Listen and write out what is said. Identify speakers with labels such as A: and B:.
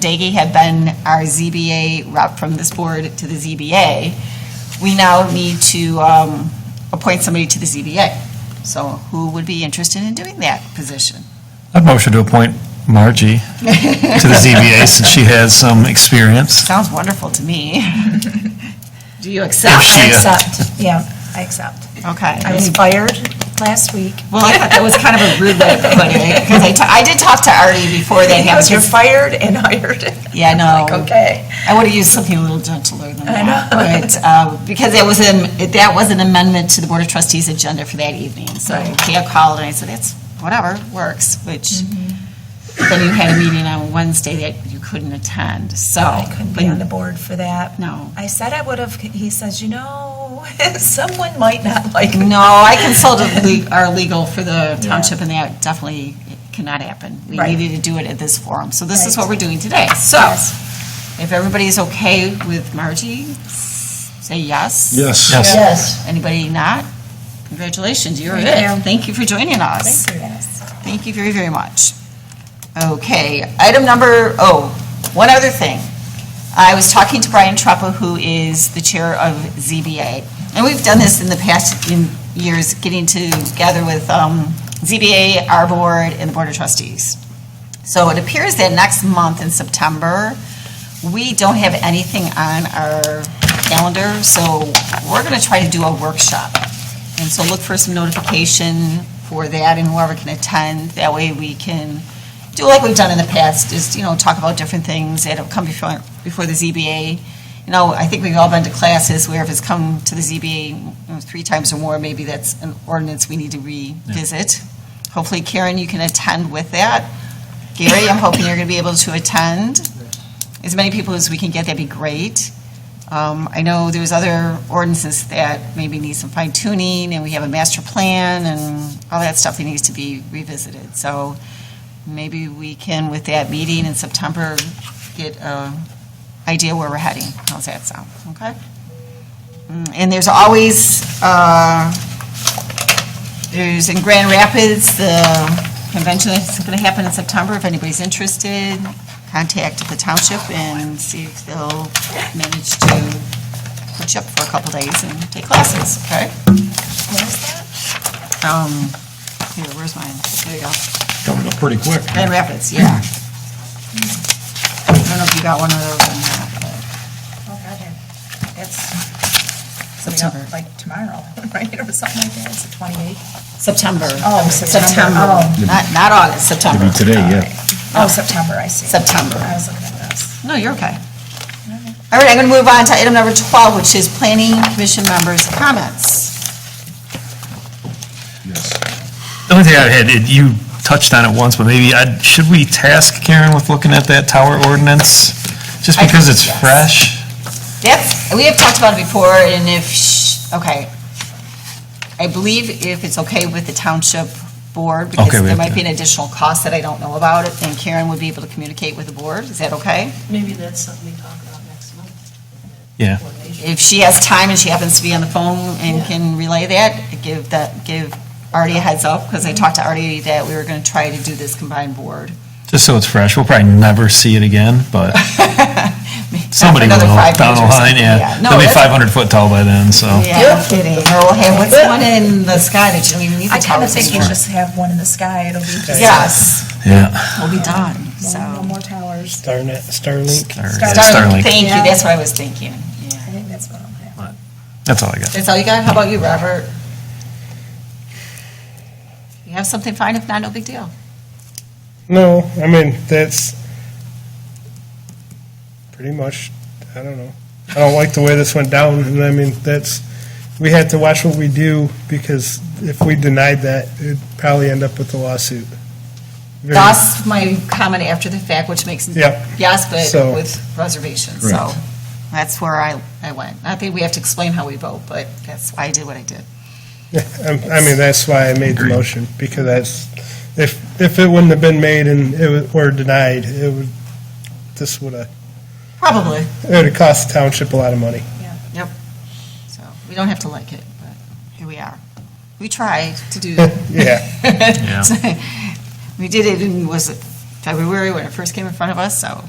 A: Daggy had been our ZBA rep from this board to the ZBA, we now need to um, appoint somebody to the ZBA. So who would be interested in doing that position?
B: I'd motion to appoint Margie to the ZBA since she has some experience.
A: Sounds wonderful to me. Do you
B: If
A: accept?
B: she,
C: I
B: uh,
C: accept, yeah, I accept.
A: Okay.
C: I was fired last week.
A: Well, I thought that was kind of a rude way of putting it, because I ta- I did talk to Artie before that happened.
C: You're fired and hired.
A: Yeah, no.
C: Like, okay.
A: I would have used something a little gentler than that.
C: I know.
A: But, uh, because that was an, that was an amendment to the Board of Trustees agenda for that evening. So
C: Right.
A: Kaya called and I said, that's, whatever, works, which,
C: Mm-hmm.
A: then you had a meeting on Wednesday that you couldn't attend, so.
C: I couldn't be
A: but
C: on the board for that.
A: No.
C: I said I would have, he says, you know, someone might not like me.
A: No, I consulted le- our legal for the township, and that definitely cannot happen. We
C: Right.
A: needed to do it at this forum, so this is
C: Right.
A: what we're doing today. So, if everybody's okay with Margie, say yes.
D: Yes.
B: Yes.
C: Yes.
A: Anybody not? Congratulations, you're
C: Thank
A: it.
C: you.
A: Thank you for joining us.
C: Thank you, yes.
A: Thank you very, very much. Okay, item number, oh, one other thing. I was talking to Brian Trappa, who is the chair of ZBA, and we've done this in the past in years, getting together with um, ZBA, our board, and the Board of Trustees. So it appears that next month in September, we don't have anything on our calendar, so we're going to try to do a workshop. And so look for some notification for that and whoever can attend. That way we can do like we've done in the past, is, you know, talk about different things that have come before, before the ZBA. You know, I think we've all been to classes where if it's come to the ZBA you know, three times or more, maybe that's an ordinance we need to revisit. Hopefully Karen, you can attend with that. Gary, I'm hoping you're going to be able to attend. As many people as we can get, that'd be great. Um, I know there's other ordinances that maybe need some fine tuning, and we have a master plan and all that stuff that needs to be revisited. So maybe we can, with that meeting in September, get an idea where we're heading. How's that sound? Okay? Mm, And there's always, uh, there's in Grand Rapids, the convention is going to happen in September. If anybody's interested, contact the township and see if they'll manage to put you up for a couple days and take classes, okay?
C: Where's that?
A: Um, here, where's mine? There you go.
D: Coming up pretty quick.
A: Grand Rapids, yeah. I don't know if you got one of those or not, but
C: Oh, God, yeah. It's coming
A: September.
C: up like tomorrow, right, or something like that, it's the 28th.
A: September.
C: Oh, September. Oh.
A: Not, not August, September.
D: Maybe today, yeah.
C: Oh, September, I see.
A: September.
C: I was looking at this.
A: No, you're okay. All right, I'm going to move on to item number 12, which is planning commission members' comments.
D: Yes.
B: The only thing I had, it- you touched on it once, but maybe, I- should we task Karen with looking at that tower ordinance? Just
A: I
B: because
A: think
B: it's
A: yes.
B: fresh?
A: That's, we have talked about it before, and if, sh- okay. I believe if it's okay with the township board, because
B: Okay, we
A: there
B: have
A: might
B: to-
A: be an additional cost that I don't know about, and Karen would be able to communicate with the board. Is that okay?
E: Maybe that's something we talk about next month.
B: Yeah.
E: Coordination.
A: If she has time and she happens to be on the phone and can relay that, give that, give Artie a heads up, because I talked to Artie that we were going to try to do this combined board.
B: Just so it's fresh, we'll probably never see it again, but somebody will
A: Another five
B: down the
A: years or something,
B: line, yeah.
A: No,
B: They'll be
A: that's-
B: 500 foot tall by then, so.
A: Yeah, no kidding. Or we'll have, what's the one in the sky that you don't even need the
C: I kind of
A: towers
C: think you
A: anymore?
C: just have one in the sky, it'll be just.
A: Yes,
B: Yeah.
A: we'll be done, so.
C: No no more towers.
F: Starnet, Starlink.
B: Or-
A: Darling,
B: Starlink,
A: Thank you,
C: Yeah.
A: that's what I was thinking, yeah.
C: I think that's what I'm having.
B: that's all I got.
A: That's all you got? How about you, Robert? You have something fine? If not, no big deal.
F: No, I mean, that's pretty much, I don't know. I don't like the way this went down, and I mean, that's, we had to watch what we do, because if we denied that, it'd probably end up with a lawsuit. Very-
A: That's my comment after the fact, which makes,
F: Yep.
A: yes,
F: So-
A: but with reservations, so.
D: Correct.
A: That's where I, I went. Not that we have to explain how we vote, but that's why I did what I did.
F: Yeah, I'm- I mean, that's why I made the motion, because that's, if, if it wouldn't have been made and it was, or denied, it would, this would have,
A: Probably,
F: it would have cost the township a lot of money.
A: so we don't have to like it, but here we are. We tried to do
F: Yeah.
A: We did it in, was it February when it first came in front of us, so